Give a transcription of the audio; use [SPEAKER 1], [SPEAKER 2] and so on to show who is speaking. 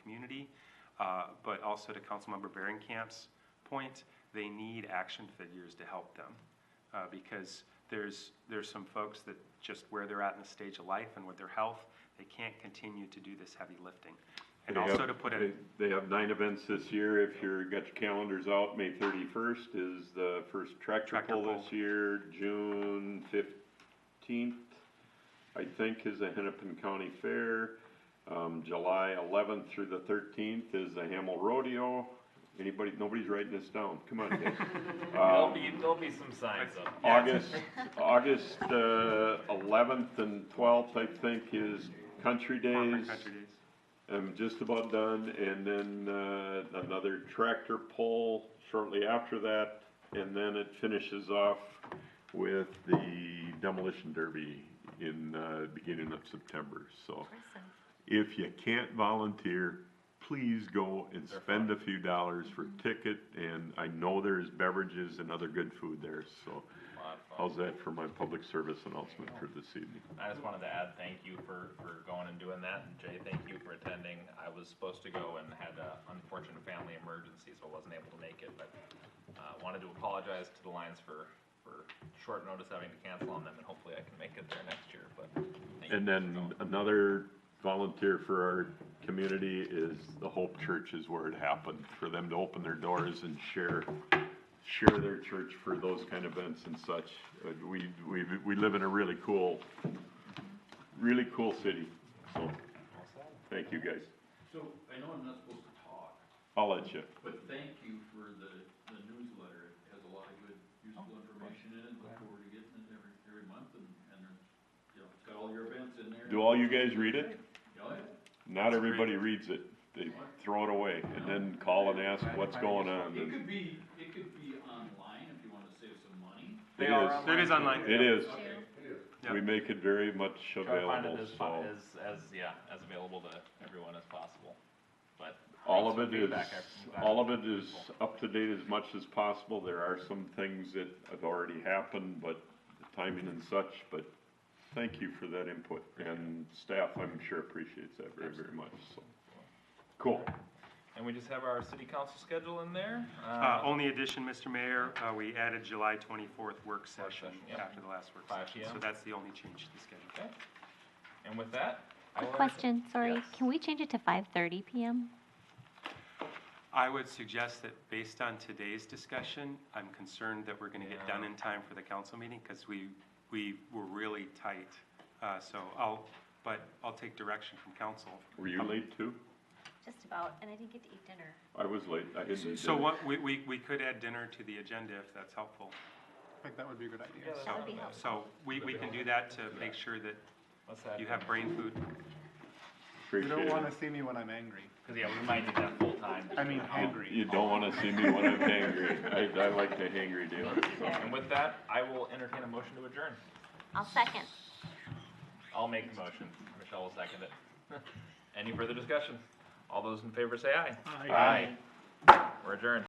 [SPEAKER 1] community. Uh, But also to Councilmember Baringcamp's point, they need action figures to help them. Uh, Because there's, there's some folks that just where they're at in the stage of life and with their health, they can't continue to do this heavy lifting. And
[SPEAKER 2] They have-
[SPEAKER 1] also to put a,
[SPEAKER 2] they- They have nine events this year, if you're, got your calendars out, May thirty-first is the first tractor
[SPEAKER 1] Tractor
[SPEAKER 2] pull
[SPEAKER 1] pull.
[SPEAKER 2] this year, June fifteenth, I think is the Hennepin County Fair, um, July eleventh through the thirteenth is the Hamel Rodeo, anybody, nobody's writing this down, come on guys.
[SPEAKER 3] There'll
[SPEAKER 2] Um,
[SPEAKER 3] be, there'll be some signs up.
[SPEAKER 2] August, August uh, eleventh and twelfth, I think, is Country
[SPEAKER 1] corporate
[SPEAKER 2] Days.
[SPEAKER 1] country days.
[SPEAKER 2] I'm just about done, and then, uh, another tractor pull shortly after that, and then it finishes off with the demolition derby in, uh, beginning of September, so. If you can't volunteer, please go and spend a few dollars for ticket, and I know there's beverages and other good food there, so.
[SPEAKER 3] Lot of fun.
[SPEAKER 2] How's that for my public service announcement for this evening?
[SPEAKER 3] I just wanted to add thank you for, for going and doing that, and Jay, thank you for attending. I was supposed to go and had an unfortunate family emergency, so I wasn't able to make it, but, uh, wanted to apologize to the Lions for, for short notice having to cancel on them, and hopefully I can make it there next year, but. thank you
[SPEAKER 2] And
[SPEAKER 3] for
[SPEAKER 2] then
[SPEAKER 3] going.
[SPEAKER 2] another volunteer for our community is the Hope Church is where it happened, for them to open their doors and share, share their church for those kind of events and such. Uh, We, we, we live in a really cool, really cool city, so, thank you guys.
[SPEAKER 4] So, I know I'm not supposed to talk,
[SPEAKER 2] I'll let you.
[SPEAKER 4] but thank you for the, the newsletter. It has a lot of good, useful information in it. Look forward to getting it every, every month and, and, there's, you know, it's got all your events in there.
[SPEAKER 2] Do all you guys read it?
[SPEAKER 4] Oh, yeah.
[SPEAKER 2] Not everybody reads it. They throw it away and then call and ask what's going on.
[SPEAKER 4] It
[SPEAKER 2] and-
[SPEAKER 4] could be, it could be online if you wanna save some money.
[SPEAKER 2] It is,
[SPEAKER 1] It is online.
[SPEAKER 2] it is.
[SPEAKER 4] Okay.
[SPEAKER 2] We make it very much
[SPEAKER 3] Try to find
[SPEAKER 2] available,
[SPEAKER 3] it as,
[SPEAKER 2] so.
[SPEAKER 3] fun- as, as, yeah, as available to everyone as possible, but.
[SPEAKER 2] All
[SPEAKER 3] thanks
[SPEAKER 2] of it
[SPEAKER 3] for
[SPEAKER 2] is,
[SPEAKER 3] feedback. I'm glad
[SPEAKER 2] all of
[SPEAKER 3] to
[SPEAKER 2] it is
[SPEAKER 3] people.
[SPEAKER 2] up to date as much as possible. There are some things that have already happened, but the timing and such, but thank you for that input. And staff, I'm sure appreciates that very, very much, so. Cool.
[SPEAKER 3] And we just have our city council schedule in there.
[SPEAKER 1] Uh,
[SPEAKER 3] oh.
[SPEAKER 1] Only addition, Mr. Mayor, uh, we added July 24th work session
[SPEAKER 3] session, yep.
[SPEAKER 1] after the last work
[SPEAKER 3] 5
[SPEAKER 1] session. So
[SPEAKER 3] PM.
[SPEAKER 1] that's the only change to the schedule.
[SPEAKER 3] Okay. And with that. I
[SPEAKER 5] A
[SPEAKER 3] will
[SPEAKER 5] question, sorry,
[SPEAKER 3] Yes.
[SPEAKER 5] can we change it to five thirty PM?
[SPEAKER 1] I would suggest that based on today's discussion, I'm concerned that we're gonna get done in time for the council meeting, because we, we were really tight. Uh, so I'll, but I'll take direction from council.
[SPEAKER 2] Were you late too?
[SPEAKER 5] Just about, and I didn't get to eat dinner.
[SPEAKER 2] I was late. I didn't. eat
[SPEAKER 1] So
[SPEAKER 2] dinner.
[SPEAKER 1] what, we, we, we could add dinner to the agenda if that's helpful. Uh,
[SPEAKER 6] think that would be a good idea.
[SPEAKER 3] Yeah,
[SPEAKER 5] That would be
[SPEAKER 3] that's-
[SPEAKER 5] helpful.
[SPEAKER 1] So we, we can do that to make sure that
[SPEAKER 3] Let's have.
[SPEAKER 1] you have brain food.
[SPEAKER 6] You
[SPEAKER 2] Appreciate
[SPEAKER 6] don't
[SPEAKER 2] it.
[SPEAKER 6] wanna see me when I'm angry.
[SPEAKER 3] Cause yeah, we might need that full time.
[SPEAKER 6] I mean,
[SPEAKER 2] Oh,
[SPEAKER 6] hangry.
[SPEAKER 2] You don't wanna see me when I'm hangry. I, I like the hangry deal.
[SPEAKER 3] And with that, I will entertain a motion to adjourn.
[SPEAKER 5] I'll second.
[SPEAKER 3] I'll make the motion. Michelle will second it. Any further discussion? All those in favor say aye. Aye. We're adjourned.